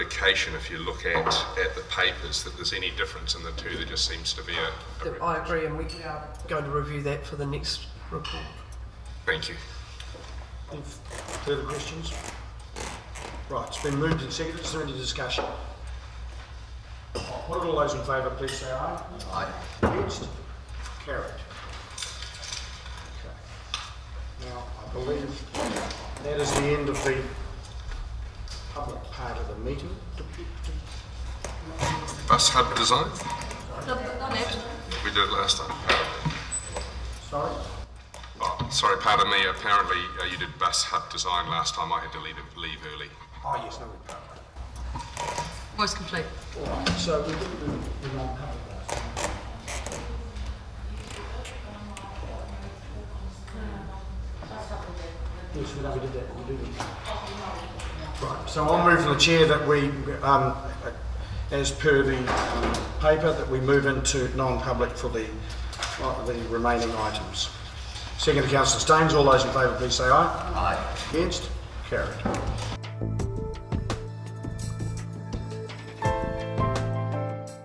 indication, if you look at, at the papers, that there's any difference in the two. There just seems to be a. a I agree, and we we are going to review that for the next report. Thank you. Any further questions? Right, it's been moved and seconded, is there any discussion? What are all those in favour, please say aye. Aye. Against? Carried. Okay. Now, I believe that is the end of the public part of the meeting. Bus hub design, Well, we did it last time. Sorry? Oh, sorry, pardon me, apparently uh, you did bus hub design last time, I had to leave, leave early. Oh, yes, no, we can't. it's complete. So we didn't do the non-public last time. Yes, we know we did that, we did it. Right, so I'll move from the chair that we, um, as per the um, paper, that we move into non-public for the, uh, the remaining items. Second to councillor Staines, all those in favour, please say aye. Aye. Against? Carried.